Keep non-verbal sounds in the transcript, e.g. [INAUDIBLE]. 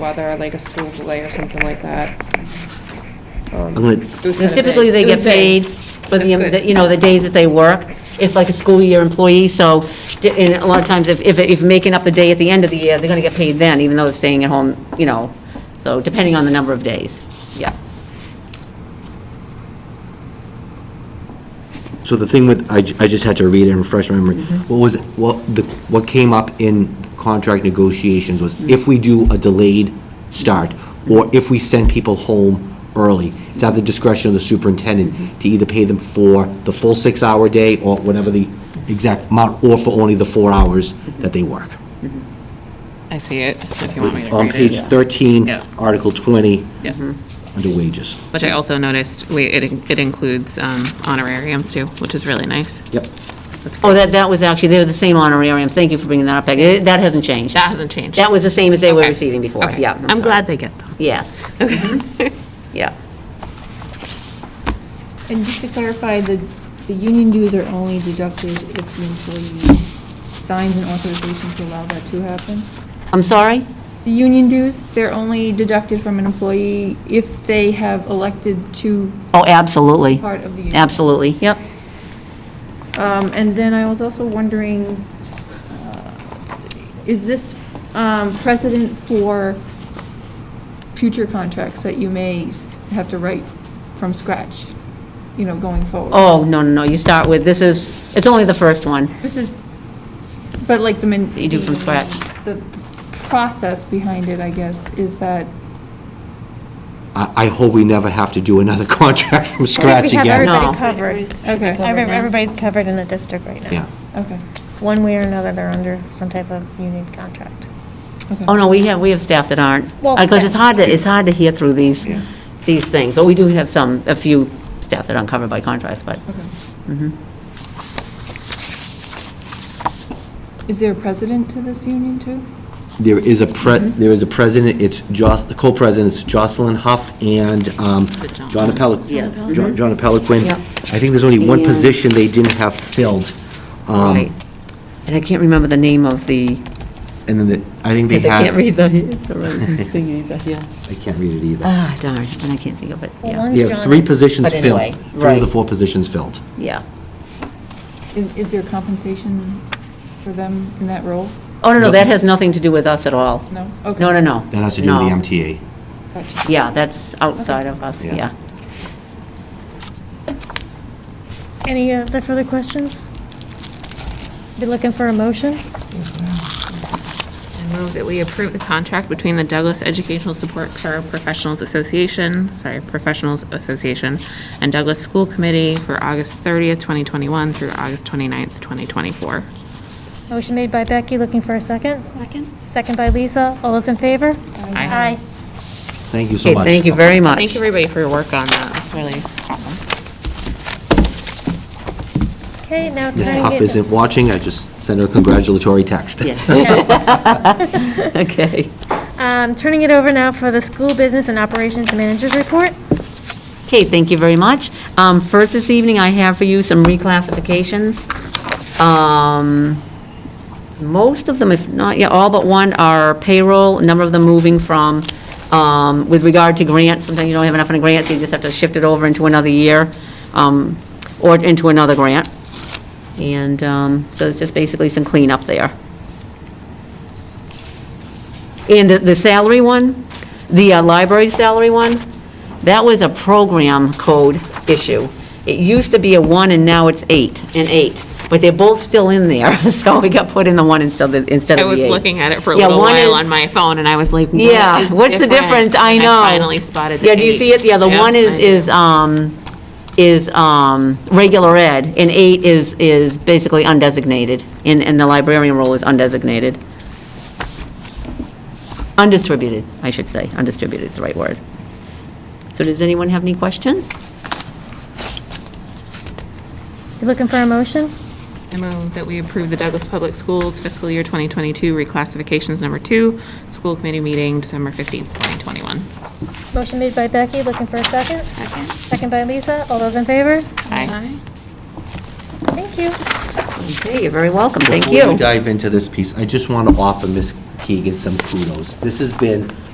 weather, like a school delay or something like that. Um, I'm gonna- it was Because kinda vague. typically, they It was get vague. paid for the, That's good. you know, the days that they work. It's like a school year employee, so, di- and a lot of times, if, if, if making up the day at the end of the year, they're gonna get paid then, even though they're staying at home, you know, so, depending on the number of days, yeah. So the thing with, I, ju- I just had to read it and refresh my memory. Mm-hmm. What was, what, the, what came up in contract negotiations was if we do a delayed start, or if we send people home early, it's at the discretion of the superintendent to either pay them for the full six-hour day, or whatever the exact amount, or for only the four hours that they work. I see it, if you want me to On read page it. 13, Yeah. Mm-hmm. Article 20, Yeah. under wages. Which I also noticed, we, it it includes um, honorariums too, which is really nice. Yep. That's Oh, great. that, that was actually, they're the same honorariums, thank you for bringing that up, Peggy, that hasn't changed. That hasn't changed. That was the same as they were Okay. receiving before, Okay. yeah. I'm sorry. glad they get them. Yes. [LAUGHS] Yeah. And just to clarify, the, the union dues are only deducted if the employee signs an authorization to allow that to happen? I'm sorry? The union dues, they're only deducted from an employee if they have elected to, Oh, absolutely. Part of the union. Absolutely, yep. um, and then I was also wondering, uh, let's see, is this, um, precedent for future contracts that you may s- have to write from scratch, you know, going forward? Oh, no, no, no, you start with, this is, it's only the first one. This is, but like the. min- You do from the- scratch. The process behind it, I guess, is that. I, I hope we never have to do another [LAUGHS] contract from scratch We have again. everybody No. covered. Okay, Every- Everybody's covered in the district right now. Yeah. okay, One way or another, they're under some type of union contract. okay. Oh, no, we have, we have staff that aren't. Well, Because it's staff. hard, to it's hard to hear through these, these things. But we do have some, a few staff that aren't covered by contracts, but, Okay. mhm. Is there a president to this union too? There is a pre, there is a president, it's Jos, the co-presidents Jocelyn Huff and um, John. John Appel. Yes. John John Appelequin. Yep. I think there's only one And- position they didn't have filled. um, right. And I can't remember the name of the, And then, the- I think they because I had. can't read the, the [LAUGHS] right thing either, yeah. I can't read it either. Ah, darn, and I can't think of it, Well, yeah, one- They have three positions But anyway, filled. Three of the right. four positions filled. yeah. Is, is there compensation for them in that role? Oh, no, no, that has nothing to do with us at all. No? No, Okay. no, no. That has to do with No. the MTA. Gotcha. Yeah, that's outside of us, Yeah. yeah. Any other further questions? Be looking for a motion? I move that we approve the contract between the Douglas Educational Support Paraprofessionals Association, sorry, Professionals Association, and Douglas School Committee for August 30th, 2021 through August 29th, 2024. Motion made by Becky, looking for a second? Second. Second by Lisa. All those in favor? Aye. Thank you so Okay, much. thank you very much. Thank everybody for your work on that. That's really awesome. Okay, now time. Ms. Huff to- isn't watching, I just sent her a congratulatory text. Yes. [LAUGHS] Okay. [LAUGHS] Um, Turning it over now for the school business and operations managers report. Okay, thank you very much. Um, First this evening, I have for you some reclassifications. Um, Most of them, if not, yeah, all but one are payroll, a number of them moving from, um, with regard to grants, sometimes you don't have enough in a grant, so you just have to shift it over into another year, um, or into another grant. And um, so it's just basically some cleanup there. And the- the salary one, the uh, library salary one, that was a program code issue. It used to be a one, and now it's eight, an eight, but they're both still in there, [LAUGHS] so we got put in the one instead of, instead I of the was eight. looking at it for a Yeah, little one while is- on my phone, and I was like, what is Yeah, what's the difference? I And know. finally spotted the Yeah, do you eight. see it? Yeah, the Yep, one is, I did. is, um, is, um, regular ed, and eight is, is basically undesignated, and, and the librarian role is undesignated. Undistributed, I should say, undistributed is the right word. So does anyone have any questions? You looking for a motion? I move that we approve the Douglas Public Schools fiscal year 2022 reclassifications number two, school committee meeting December 15th, 2021. Motion made by Becky, looking for a second? Second. Second by Lisa. All those in favor? Aye. Thank you. Okay, you're very welcome, thank [LAUGHS] Before we you. dive into this piece, I just want to offer Ms. Keegan some kudos. This has been